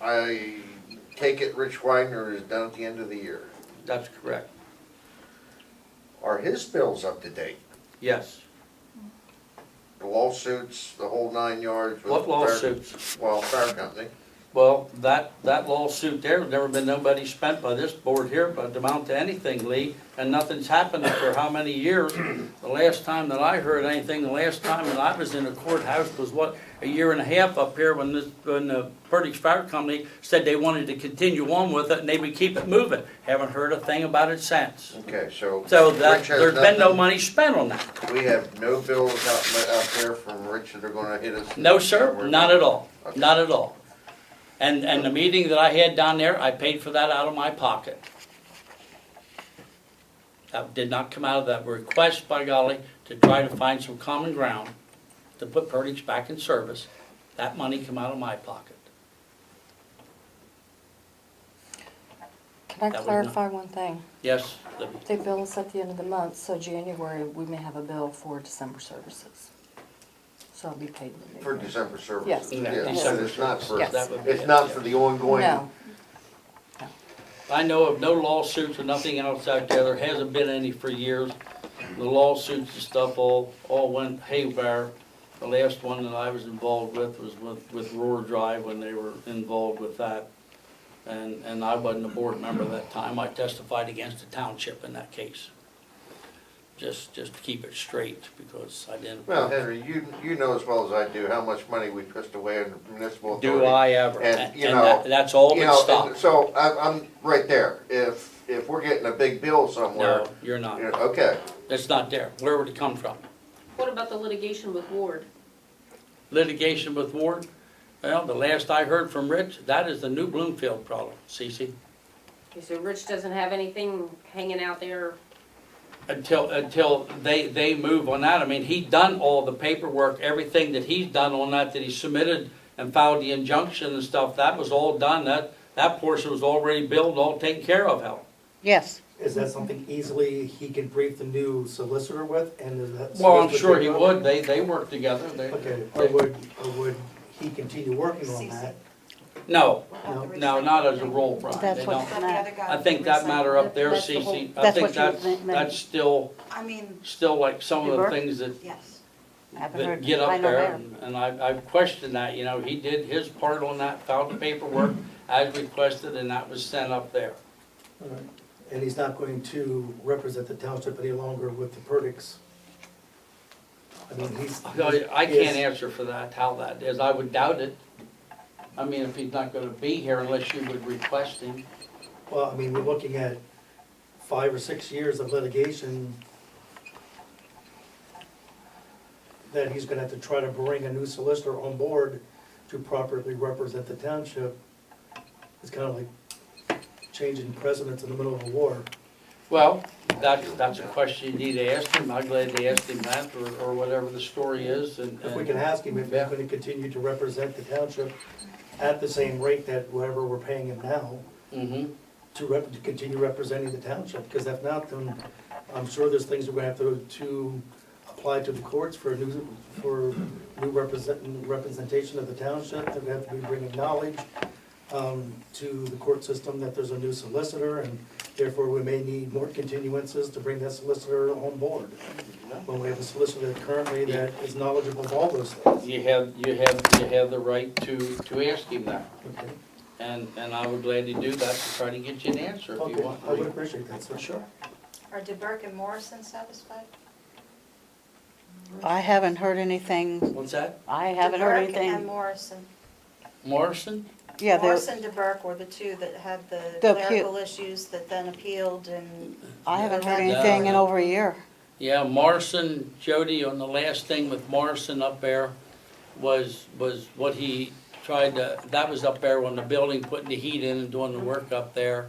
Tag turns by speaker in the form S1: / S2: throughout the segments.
S1: I take it Rich Weiner is done at the end of the year.
S2: That's correct,
S1: Are his bills up to date?
S2: yes.
S1: The lawsuits, the whole nine yards with.
S2: What
S1: the fire-
S2: lawsuits?
S1: Well, fire company.
S2: Well, that, that lawsuit there, never been nobody spent by this board here, but amount to anything, Lee, and nothing's happened for how many years? The last time that I heard anything, the last time that I was in a courthouse was what, a year and a half up here when this, when the Perdix Fire Company said they wanted to continue on with it and they would keep it moving. Haven't heard a thing about it since.
S1: Okay, so.
S2: So that,
S1: Rich has
S2: there's been no
S1: nothing-
S2: money spent on that.
S1: We have no bills out, out there from Rich that are gonna hit us.
S2: No, sir, not at all,
S1: Okay.
S2: not at all. And, and the meeting that I had down there, I paid for that out of my pocket. That did not come out of that request, by golly, to try to find some common ground to put Perdix back in service. That money come out of my pocket.
S3: Can
S2: That
S3: I
S2: was
S3: clarify one thing?
S2: Yes, Libby?
S3: They bill us at the end of the month, so January, we may have a bill for December services. So I'll be paid in the new
S1: For
S3: year.
S1: December
S3: Yes.
S1: services,
S2: Yeah,
S1: yes, but
S2: December
S1: it's not for,
S3: services. Yes.
S2: That would be
S1: it's
S2: it,
S1: not
S2: yeah.
S1: for the ongoing.
S3: No,
S2: I know of no lawsuits or nothing else out there. There hasn't been any for years. The lawsuits and stuff all, all went haywire. The last one that I was involved with was with, with Roar Drive when they were involved with that. And, and I wasn't a board member that time. I testified against the township in that case. Just, just to keep it straight because I didn't.
S1: Well, Henry, you, you know as well as I do how much money we pissed away in municipal authority.
S2: Do I ever?
S1: And,
S2: And
S1: you
S2: and
S1: know,
S2: that- that's all
S1: You
S2: that
S1: know, and
S2: stopped.
S1: so I, I'm right there. If, if we're getting a big bill somewhere,
S2: No, you're not.
S1: you know, okay,
S2: That's not there. Where would it come from?
S4: What about the litigation with Ward?
S2: litigation with Ward? Well, the last I heard from Rich, that is the new Bloomfield problem, Cece.
S4: Okay, so Rich doesn't have anything hanging out there.
S2: Until, until they, they move on that, I mean, he done all the paperwork, everything that he's done on that, that he submitted and filed the injunction and stuff, that was all done, that, that portion was already billed, all taken care of, Helen.
S5: Yes,
S6: Is that something easily he can brief the new solicitor with, and is that?
S2: Well, I'm
S6: solicitor
S2: sure he
S6: pick up?
S2: would, they, they work together, they.
S6: Okay, or would, or would he continue working on that?
S2: No,
S6: No.
S2: no, not as a role, Brian, they
S5: That's what-
S2: don't.
S7: Have the other guy
S2: I think that
S7: resign.
S2: matter up there,
S5: That's the whole-
S2: Cece, I
S5: that's
S2: think
S5: what you were
S2: that's,
S5: meant- meant.
S2: that's still,
S7: I mean,
S2: still like some of the
S5: Ebert?
S2: things that
S7: yes.
S5: I haven't
S2: that
S5: heard.
S2: get up
S5: I know
S2: there,
S5: that.
S2: and- and I, I questioned that, you know, he did his part on that, filed the paperwork as requested, and that was sent up there.
S6: All right. And he's not going to represent the township any longer with the verdicts? I mean, he's.
S2: I I can't
S6: he's-
S2: answer for that, how that is, I would doubt it. I mean, if he's not gonna be here unless you would request him,
S6: Well, I mean, we're looking at five or six years of litigation that he's gonna have to try to bring a new solicitor on board to properly represent the township. It's kind of like changing presidents in the middle of a war.
S2: well, that's, that's a question you need to ask him, I'm glad they asked him that, or, or whatever the story is, and.
S6: If we can ask him if he's
S2: Yeah.
S6: gonna continue to represent the township at the same rate that whatever we're paying him now,
S2: Mm-hmm,
S6: to rep, to continue representing the township, because if not, then I'm sure there's things we're gonna have to, to apply to the courts for a new, for new represent, representation of the township, that we have to be bringing knowledge um, to the court system that there's a new solicitor, and therefore we may need more continuances to bring that solicitor on board. When we have a solicitor currently that is knowledgeable of all those things.
S2: you have, you have, you have the right to, to ask him that,
S6: Okay,
S2: and, and I would gladly do that to try to get you an answer if you
S6: Okay,
S2: want.
S6: I would appreciate that, sir. Sure.
S7: Are DeBerk and Morrison satisfied?
S5: I haven't heard anything,
S2: What's that?
S5: I haven't heard
S7: DeBerk and
S5: anything.
S7: Morrison.
S2: Morrison?
S5: Yeah, there,
S7: Morrison, DeBerk were the two that had the
S5: The appeal.
S7: clerical issues that then appealed and
S5: I haven't heard
S7: No.
S5: anything in over a year.
S2: Yeah, Morrison, Jody, on the last thing with Morrison up there was, was what he tried to, that was up there when the building, putting the heat in and doing the work up there.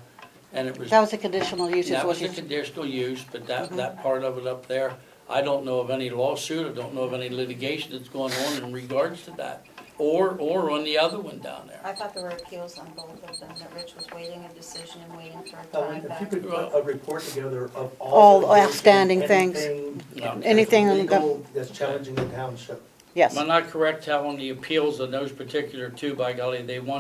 S2: And it was,
S5: That was Mm-hmm. a conditional use, is
S2: that
S5: what
S2: was a
S5: you,
S2: conditional use, but that, that part of it up there, I don't know of any lawsuit, I don't know of any litigation that's going on in regards to that. Or, or on the other one down there.
S7: I thought there were appeals on both of them, that Rich was waiting a decision and waiting for a
S6: Uh,
S7: time
S6: If you
S7: back.
S6: could put a report together of all.
S5: All
S6: the litigation,
S5: outstanding things.
S6: anything
S2: No.
S5: Anything in the gov-
S6: Legal that's challenging the township.
S5: yes.
S2: Am I not correct, Helen, the appeals on those particular two, by golly, they won